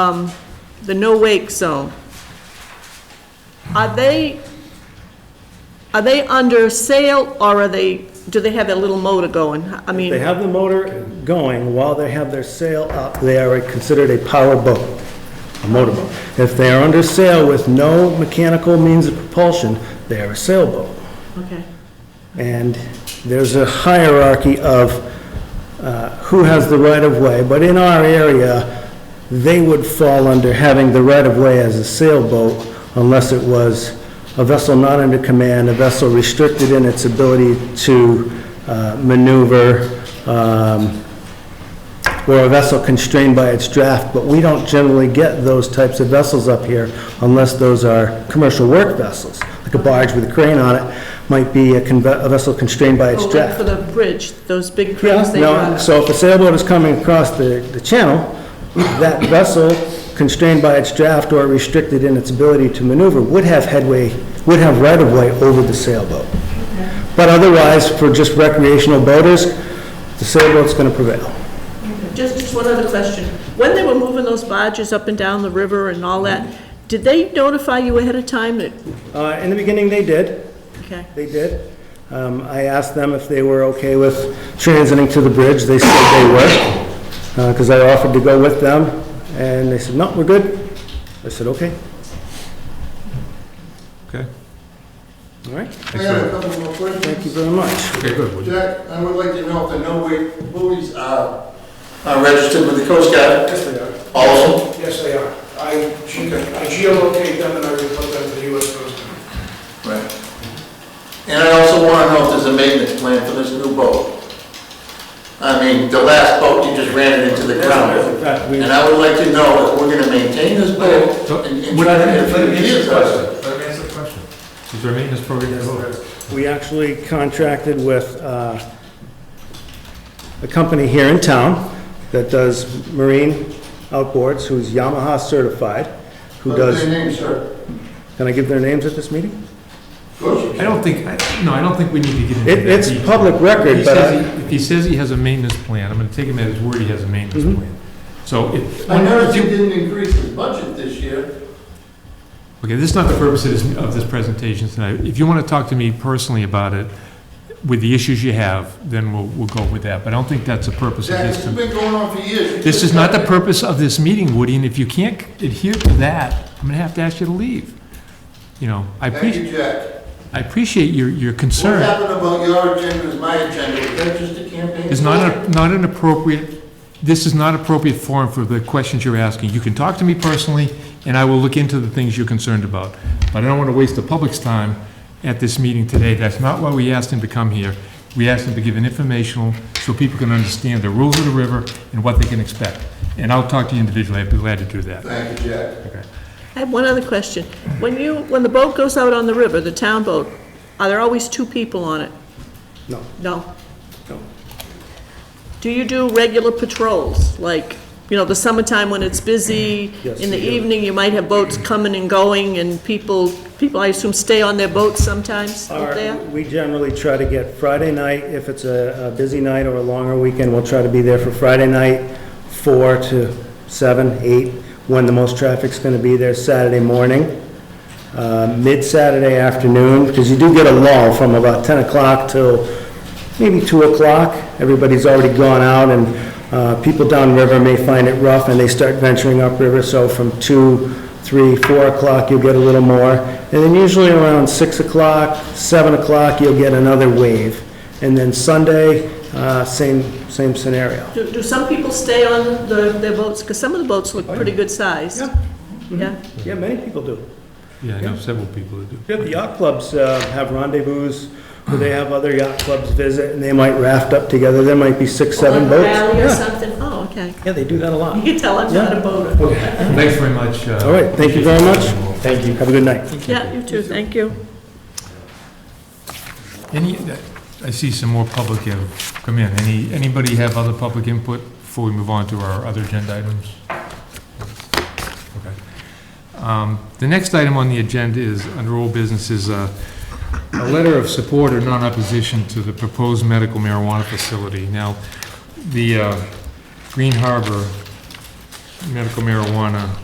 um, the no-wake zone, are they, are they under sail, or are they, do they have that little motor going? I mean, They have the motor going while they have their sail up, they are considered a power boat, a motorboat. If they are under sail with no mechanical means of propulsion, they are a sailboat. okay, And there's a hierarchy of uh, who has the right-of-way, but in our area, they would fall under having the right-of-way as a sailboat unless it was a vessel not under command, a vessel restricted in its ability to uh, maneuver, um, or a vessel constrained by its draft, but we don't generally get those types of vessels up here unless those are commercial work vessels, like a barge with a crane on it might be a conve- a vessel constrained by its Oh, like for draft. the bridge, those big Yeah, cranes they no, got? so if a sailboat is coming across the, the channel, that vessel constrained by its draft or restricted in its ability to maneuver would have headway, would have right-of-way over the sailboat. But otherwise, for just recreational boaters, the sailboat's gonna prevail. Just, just one other question. When they were moving those barges up and down the river and all that, did they notify you ahead of time that, Uh, in the beginning, they did, okay? They did. Um, I asked them if they were okay with transiting to the bridge. They said they were, because I offered to go with them, and they said, no, we're good. I said, okay, Okay. all right, I have a couple more thank you questions. very much. Okay, good. Would- Jack, I would like to know if the no-wake buoys are are registered with the Coast Guard? Yes, they are. Also, Yes, they are. I ge- I geolocate them and I report them to the US Coast Guard. and I also want to know if there's a maintenance plan for this new boat. I mean, the last boat, you just ran it into the ground. And I would like to know if we're going to maintain this boat and and Would- try to get a let few me answer years uh, the out of it. question. Let me answer the question. Is there a maintenance program? involved? We actually contracted with uh, a company here in town that does marine outboards, who's Yamaha certified, who What's does, your name, sir? can I give their names at this meeting? Coach? I don't think, I- no, I don't think we need to get into It- that. It's detail. public record, He but I... says he- If he says he has a maintenance plan, I'm gonna take him at his word he has a maintenance Mm-hmm. plan. So if. I noticed you didn't increase his budget this year. Okay, this is not the purpose of this, of this presentation tonight. If you want to talk to me personally about it, with the issues you have, then we'll, we'll go with that, but I don't think that's the purpose of Jack, this. this has tonight. been going on for years. You This could've is not the done it. purpose of this meeting, Woody, and if you can't adhere to that, I'm gonna have to ask you to leave. You know, I Thank appreciate, you, Jack. I appreciate your, your What concern. happened about your agenda is my agenda, is that just a campaign? It's not, a- not an appropriate, this is not appropriate forum for the questions you're asking. You can talk to me personally, and I will look into the things you're concerned about. But I don't want to waste the public's time at this meeting today. That's not why we asked him to come here. We asked him to give an informational, so people can understand the rules of the river and what they can expect. And I'll talk to you individually, I'd be glad to do that. Thank you, Jack. I have one other question. When you, when the boat goes out on the river, the town boat, are there always two people on it? No. No? No. Do you do regular patrols, like, you know, the summertime when it's busy? Yes, In the we do. evening, you might have boats coming and going, and people, people, I assume, stay on their boats sometimes Our- out there? We generally try to get Friday night, if it's a a busy night or a longer weekend, we'll try to be there for Friday night, four to seven, eight, when the most traffic's going to be there, Saturday morning, uh, mid-Saturday afternoon, because you do get a lull from about 10 o'clock till maybe 2 o'clock. Everybody's already gone out, and uh, people downriver may find it rough, and they start venturing upriver, so from 2, 3, 4 o'clock, you'll get a little more. And then usually around 6 o'clock, 7 o'clock, you'll get another wave. And then Sunday, uh, same, same scenario. Do, do some people stay on the, their boats? Because some of the boats look pretty good size. Oh, Yeah. Mm-hmm. Yeah? Yeah, many people do. Yeah, I know several people that do. Yeah, the yacht clubs uh, have rendezvous, where they have other yacht clubs visit, and they might raft up together, there might be six, seven Like a boats. Rally or Yeah. something? Oh, okay. Yeah, they do that a You lot. can tell I'm not a boater. Thanks very much. uh, All right, thank you very much. Thank you. Have a good night. Yeah, you too, thank you. Any, I see some more public have come in. Any, anybody have other public input before we move on to our other agenda items? Okay. Um, The next item on the agenda is, under old business, is uh, a letter of support or non-opposition to the proposed medical marijuana facility. Now, the uh, Green Harbor medical marijuana